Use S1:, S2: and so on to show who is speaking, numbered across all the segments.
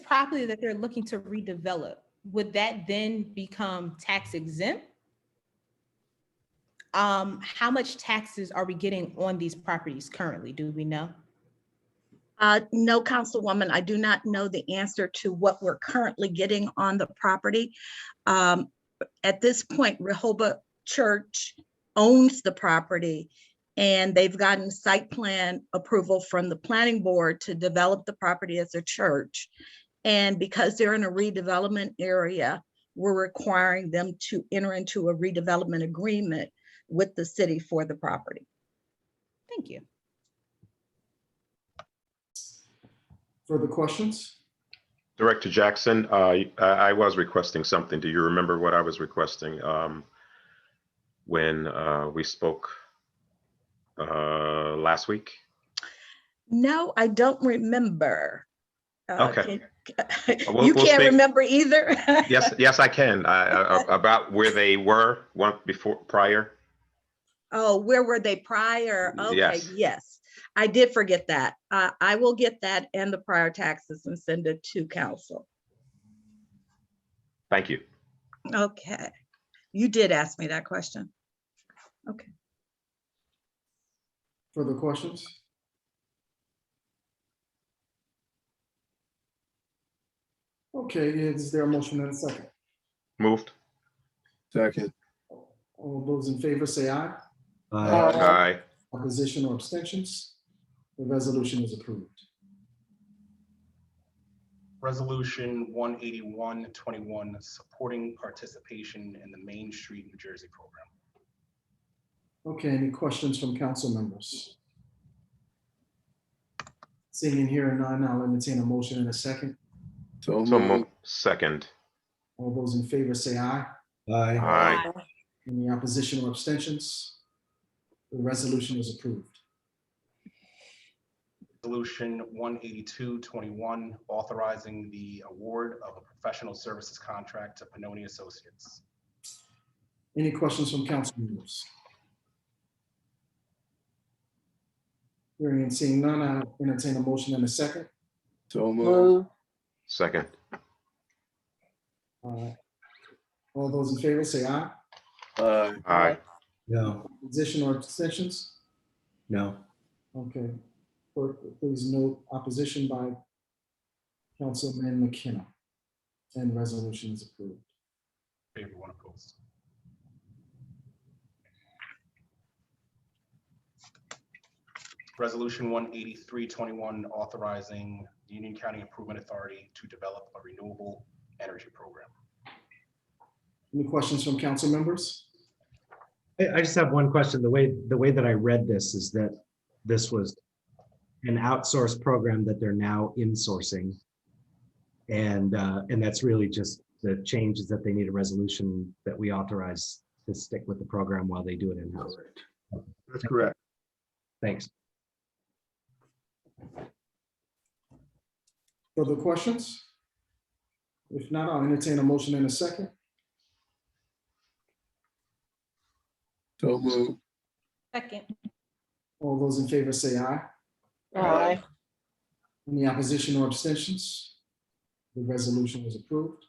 S1: property that they're looking to redevelop, would that then become tax exempt? Um, how much taxes are we getting on these properties currently? Do we know?
S2: Uh, no, Councilwoman, I do not know the answer to what we're currently getting on the property. Um, at this point, Rehoboth Church owns the property and they've gotten site plan approval from the planning board to develop the property as a church. And because they're in a redevelopment area, we're requiring them to enter into a redevelopment agreement with the city for the property.
S1: Thank you.
S3: Further questions?
S4: Director Jackson, uh, I I was requesting something. Do you remember what I was requesting um, when uh, we spoke uh, last week?
S2: No, I don't remember. Uh,
S4: Okay.
S2: can-
S4: Uh, we'll-
S2: You
S4: we'll
S2: can't
S4: speak-
S2: remember either?
S4: Yes, yes, I can. I- I- About where they were one before, prior?
S2: Oh, where were they prior? Okay,
S4: Yes.
S2: yes. I did forget that. Uh, I will get that and the prior taxes and send it to council.
S4: Thank you.
S2: Okay. You did ask me that question.
S3: Further questions? Okay, is there a motion and a second?
S4: Moved.
S5: Second.
S3: All those in favor say aye.
S5: Aye.
S4: Aye.
S3: Opposition or abstentions? The resolution is approved.
S6: Resolution one eighty-one twenty-one, supporting participation in the Main Street New Jersey program.
S3: Okay, any questions from council members? Seeing and hearing none, I'll entertain a motion and a second.
S5: So
S4: So
S5: moved.
S4: moved. Second.
S3: All those in favor say aye.
S5: Aye.
S4: Aye.
S3: Any opposition or abstentions? The resolution is approved.
S6: Resolution one eighty-two twenty-one, authorizing the award of a professional services contract to Pannoni Associates.
S3: Any questions from council members? Hearing and seeing none, I'll entertain a motion and a second.
S5: So moved.
S4: Second.
S3: Uh, All those in favor say aye.
S5: Aye.
S4: Aye.
S7: No,
S3: Opposition or abstentions?
S7: no.
S3: Okay, clerk, please note opposition by Councilman McKenna. And resolution is approved.
S6: Favor one opposed. Resolution one eighty-three twenty-one, authorizing the Union County Improvement Authority to develop a renewable energy program.
S3: Any questions from council members?
S7: I, I just have one question. The way, the way that I read this is that this was an outsourced program that they're now insourcing. And, uh, and that's really just the change is that they need a resolution that we authorize to stick with the program while they do it in-house.
S5: That's correct.
S7: Thanks.
S3: Further questions? If not, I'll entertain a motion in a second.
S5: So moved.
S1: Second.
S3: All those in favor say aye.
S5: Aye.
S3: Any opposition or abstentions? The resolution is approved.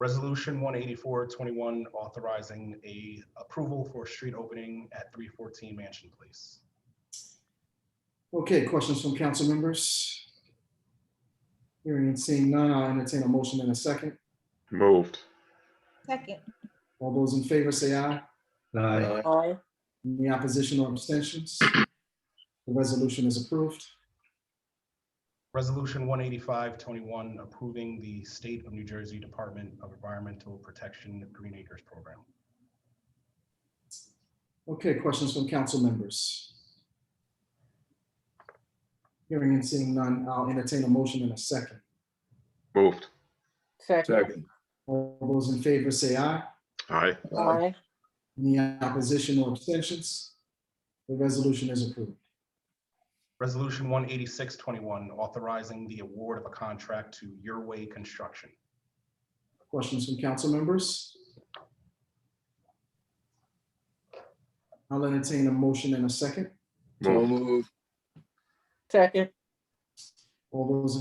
S6: Resolution one eighty-four twenty-one, authorizing a approval for street opening at three fourteen Mansion Place.
S3: Okay, questions from council members? Hearing and seeing none, I'll entertain a motion in a second.
S4: Moved.
S1: Second.
S3: All those in favor say aye.
S7: Aye.
S3: Any opposition or abstentions? The resolution is approved.
S6: Resolution one eighty-five twenty-one, approving the State of New Jersey Department of Environmental Protection Green Acres Program.
S3: Okay, questions from council members? Hearing and seeing none, I'll entertain a motion in a second.
S4: Moved.
S5: Second.
S3: All those in favor say aye.
S4: Aye.
S5: Aye.
S3: Any opposition or abstentions? The resolution is approved.
S6: Resolution one eighty-six twenty-one, authorizing the award of a contract to Your Way Construction.
S3: Questions from council members? I'll entertain a motion in a second.
S5: So
S4: Moved.
S5: moved.
S3: All those in